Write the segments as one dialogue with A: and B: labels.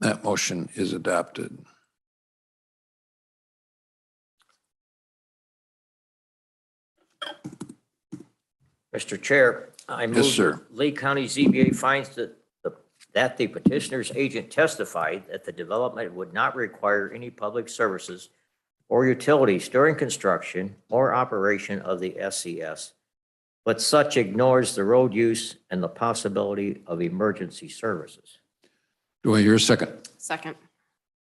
A: That motion is adopted.
B: Mr. Chair, I move.
A: sir.
B: that Lee County ZBA finds that, the- that the petitioner's agent testified that the development would not require any public services or utilities during construction or operation of the SES, but such ignores the road use and the possibility of emergency services.
A: Do I hear a second?
C: Second.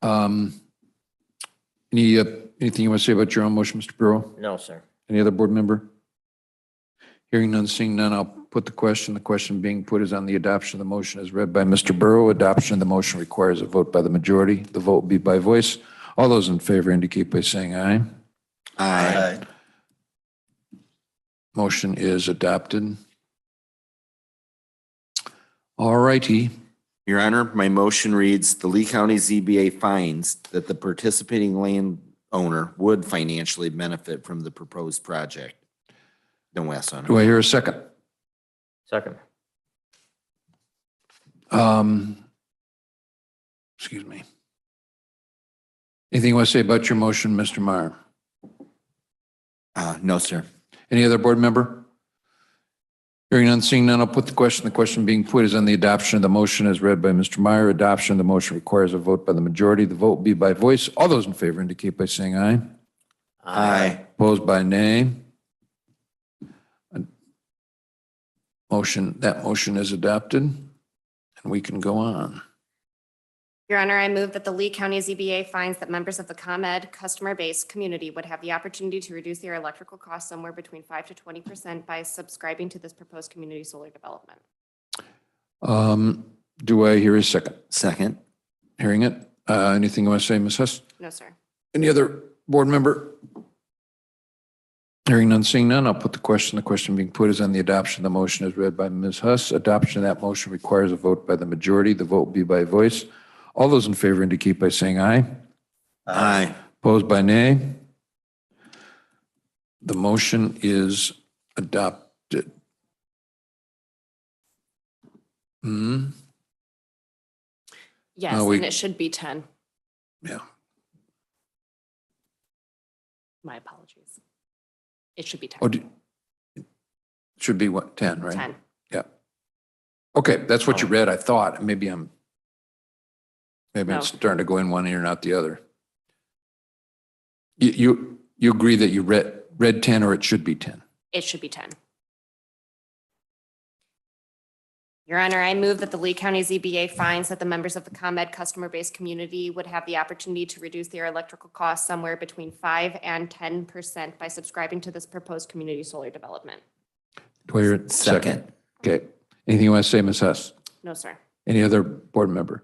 A: Um, Any, uh, anything you want to say about your own motion, Mr. Burrow?
B: No, sir.
A: Any other board member? Hearing none, seeing none, I'll put the question. The question being put is on the adoption of the motion as read by Mr. Burrow. Adoption of the motion requires a vote by the majority. The vote will be by voice. All those in favor indicate by saying aye.
D: Aye.
A: Motion is adopted. All righty.
D: Your Honor, my motion reads, the Lee County ZBA finds that the participating landowner would financially benefit from the proposed project. No S on
A: Do
D: it.
A: I hear a second?
B: Second.
A: Um, Excuse me. Anything you want to say about your motion, Mr. Meyer?
D: Uh, no, sir.
A: Any other board member? Hearing none, seeing none, I'll put the question. The question being put is on the adoption of the motion as read by Mr. Meyer. Adoption of the motion requires a vote by the majority. The vote will be by voice. All those in favor indicate by saying aye. Opposed by nay. Motion, that motion is adopted, and we can go on.
C: Your Honor, I move that the Lee County ZBA finds that members of the ComEd customer base community would have the opportunity to reduce their electrical costs somewhere between 5 to 20% by subscribing to this proposed community solar development.
A: Um, Do I hear a second?
D: Second.
A: Hearing it? Uh, Anything you want to say, Ms. Hess?
C: No, sir.
A: Any other board member? Hearing none, seeing none, I'll put the question. The question being put is on the adoption of the motion as read by Ms. Huss. Adoption of that motion requires a vote by the majority. The vote will be by voice. All those in favor indicate by saying aye.
D: Aye.
A: Opposed by nay? The motion is adopted. Hmm,
C: Yes,
A: we-
C: and it should be 10.
A: yeah.
C: My apologies. It should be 10.
A: Oh, do- Should be what, 10, right?
C: 10.
A: Yeah. Okay, that's what you read, I thought. Maybe I'm, maybe
C: No.
A: I'm starting to go in one ear and out the other. You, you, you agree that you read, read 10 or it should be 10?
C: It should be 10. Your Honor, I move that the Lee County ZBA finds that the members of the ComEd customer base community would have the opportunity to reduce their electrical costs somewhere between 5 and 10% by subscribing to this proposed community solar development.
A: Do I hear a second? Okay. Anything you want to say, Ms. Huss?
C: No, sir.
A: Any other board member?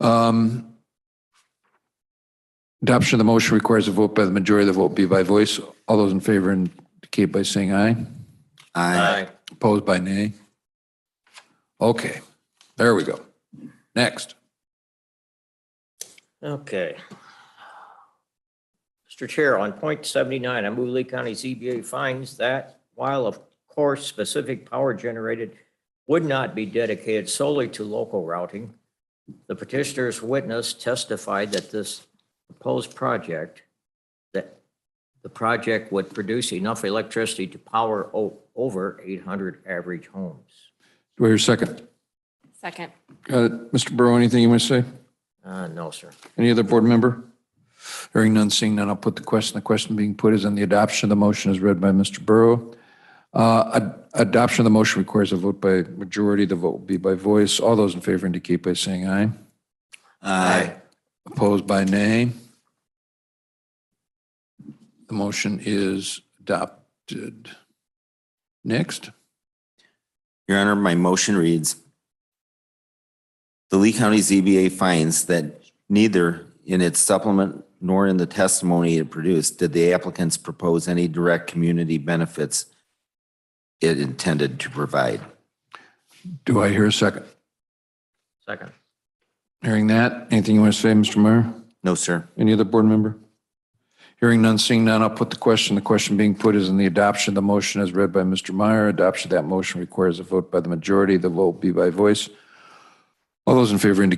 A: Um, Adoption of the motion requires a vote by the majority. The vote be by voice. All those in favor indicate by saying aye.
D: Aye.
A: Opposed by nay? Okay, there we go. Next.
B: Okay. Mr. Chair, on point seventy-nine, I move Lee County ZBA finds that while of course specific power generated would not be dedicated solely to local routing, the petitioner's witness testified that this proposed project, that the project would produce enough electricity to power o- over eight hundred average homes.
A: Do I hear a second?
C: Second.
A: Got it. Mr. Burrow, anything you want to say?
B: Uh, no, sir.
A: Any other board member? Hearing none, seeing none, I'll put the question. The question being put is on the adoption of the motion as read by Mr. Burrow. Uh, ad- Adoption of the motion requires a vote by majority. The vote will be by voice. All those in favor indicate by saying aye.
D: Aye.
A: Opposed by nay? The motion is adopted. Next.
D: Your Honor, my motion reads, the Lee County ZBA finds that neither in its supplement nor in the testimony it produced did the applicants propose any direct community benefits it intended to provide.
A: Do I hear a second?
B: Second.
A: Hearing that, anything you want to say, Mr. Meyer?
D: No, sir.
A: Any other board member? Hearing none, seeing none, I'll put the question. The question being put is in the adoption of the motion as read by Mr. Meyer. Adoption of that motion requires a vote by the majority. The vote will be by voice. All those in favor indicate